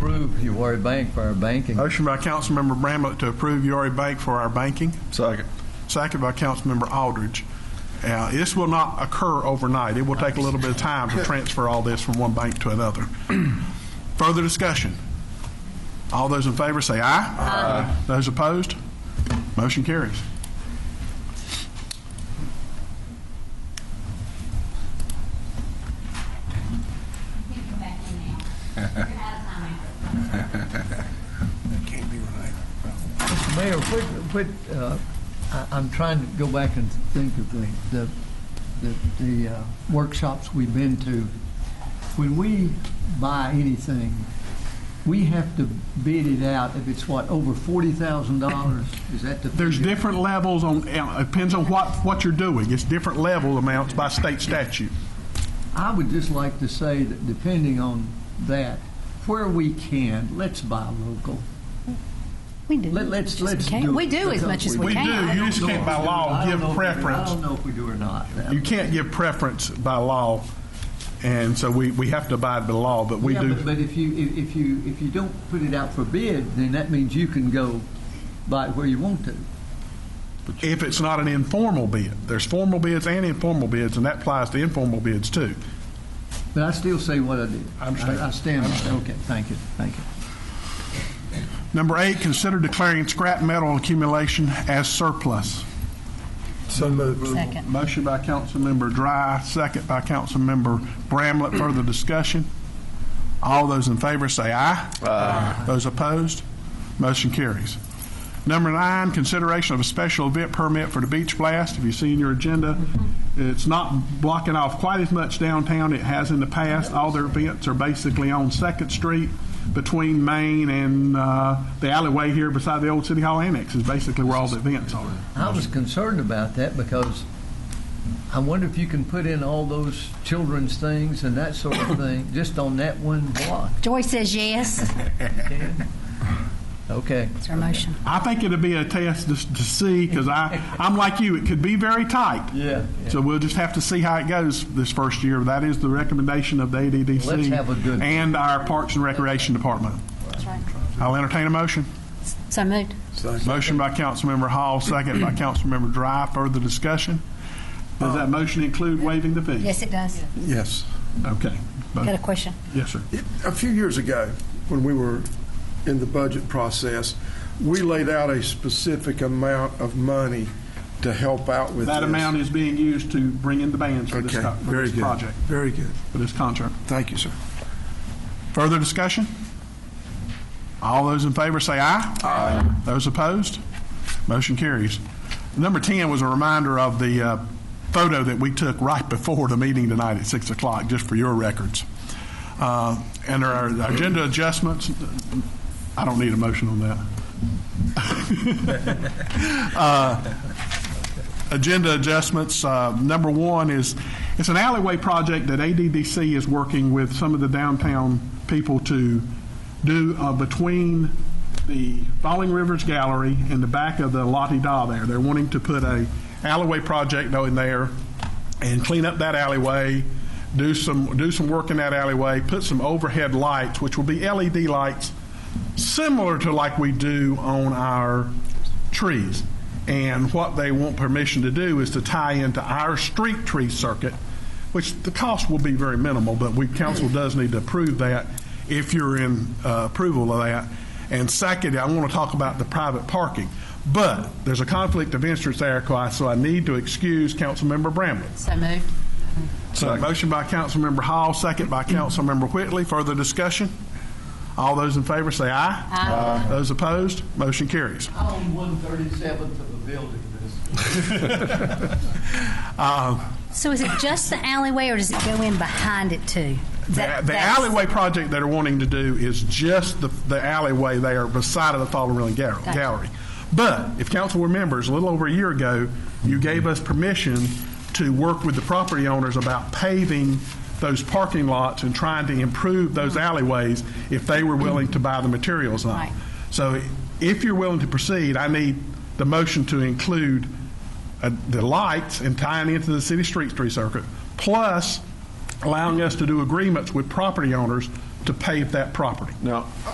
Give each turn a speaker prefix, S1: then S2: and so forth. S1: approve URA Bank for our banking.
S2: Motion by Councilmember Bramlett to approve URA Bank for our banking.
S3: Second.
S2: Second by Councilmember Aldridge. Now, this will not occur overnight. It will take a little bit of time to transfer all this from one bank to another. Further discussion? All those in favor say aye. Aye. Those opposed? Motion carries.
S4: You can come back in now. You're out of time after.
S1: Mayor, what, what, uh, I, I'm trying to go back and think of the, the, the, the uh, workshops we've been to. When we buy anything, we have to bid it out if it's what, over forty thousand dollars? Is that the?
S2: There's
S1: figure?
S2: different levels on, uh, it depends on what, what you're doing. It's different level amounts by state statute.
S1: I would just like to say that depending on that, where we can, let's buy local.
S5: We do.
S1: Let, let's,
S5: Just
S1: let's
S5: can't-
S1: do.
S5: We do as much as we
S2: We
S5: can.
S2: do. You just can't by law
S1: I don't
S2: give
S1: know if we do.
S2: preference.
S1: I don't know if we do or not.
S2: You can't give preference by law, and so we, we have to abide by law, but we
S1: Yeah,
S2: do.
S1: but- But if you, if- if you, if you don't put it out for bid, then that means you can go buy it where you want to.
S2: If it's not an informal bid, there's formal bids and informal bids, and that applies to informal bids too.
S1: But I still say what I did.
S2: I understand.
S1: I stand, by it. okay, thank you, thank you.
S2: Number eight, consider declaring scrap metal accumulation as surplus.
S3: So moved.
S5: Second.
S2: Motion by Councilmember Dry, second by Councilmember Bramlett. Further discussion? All those in favor say aye. Aye. Those opposed? Motion carries. Number nine, consideration of a special event permit for the beach blast. Have you seen your agenda? It's not blocking off quite as much downtown it has in the past. All their events are basically on Second Street between Main and uh, the alleyway here beside the old City Hall Annex is basically where all the events are.
S1: I was concerned about that because I wonder if you can put in all those children's things and that sort of thing, just on that one block.
S5: Joy says yes.
S1: Okay.
S5: It's our motion.
S2: I think it'd be a test to, to see because I I'm like you. It could be very tight.
S1: Yeah.
S2: So we'll just have to see how it goes this first year. That is the recommendation of the ADDC
S1: Let's have a good-
S2: and our Parks and Recreation Department.
S5: That's right.
S2: I'll entertain a motion.
S5: So moved.
S2: Motion by Councilmember Hall, second by Councilmember Dry. Further discussion. Does that motion include waiving the fee?
S5: Yes, it does.
S3: Yes.
S2: Okay.
S5: Got a question?
S2: Yes, sir.
S6: A few years ago, when we were in the budget process, we laid out a specific amount of money to help out with
S2: That
S6: this.
S2: amount is being used to bring in the bands for this,
S6: Okay,
S2: co- for
S6: very
S2: this
S6: good.
S2: project,
S6: Very good.
S2: for this contract.
S6: Thank you, sir.
S2: Further discussion? All those in favor say aye. Aye. Those opposed? Motion carries. Number 10 was a reminder of the uh, photo that we took right before the meeting tonight at 6 o'clock, just for your records. Uh, And there are agenda adjustments. I don't need a motion on that. agenda adjustments. Uh, Number one is, it's an alleyway project that ADDC is working with some of the downtown people to do uh, between the Falling Rivers Gallery and the back of the Lottie Da there. They're wanting to put a alleyway project in there and clean up that alleyway, do some, do some work in that alleyway, put some overhead lights, which will be LED lights, similar to like we do on our trees. And what they want permission to do is to tie into our street tree circuit, which the cost will be very minimal, but we, council does need to approve that if you're in uh, approval of that. And second, I want to talk about the private parking. But there's a conflict of interest there, so I need to excuse Councilmember Bramlett.
S5: So moved.
S2: So motion by Councilmember Hall, second by Councilmember Whitley. Further discussion? All those in favor say aye. Aye. Those opposed, motion carries.
S1: I own one thirty-seventh of a building, this.
S5: So is it just the alleyway or does it go in behind it too?
S2: The
S5: That-
S2: the
S5: that's-
S2: alleyway project that are wanting to do is just the the alleyway there beside of the Fallen Ruin Gal-
S5: Gotcha.
S2: Gallery. But if council remembers, a little over a year ago, you gave us permission to work with the property owners about paving those parking lots and trying to improve those alleyways if they were willing to buy the materials on.
S5: Right.
S2: So if you're willing to proceed, I need the motion to include uh, the lights and tying into the city street tree circuit, plus allowing us to do agreements with property owners to pave that property.
S3: Now,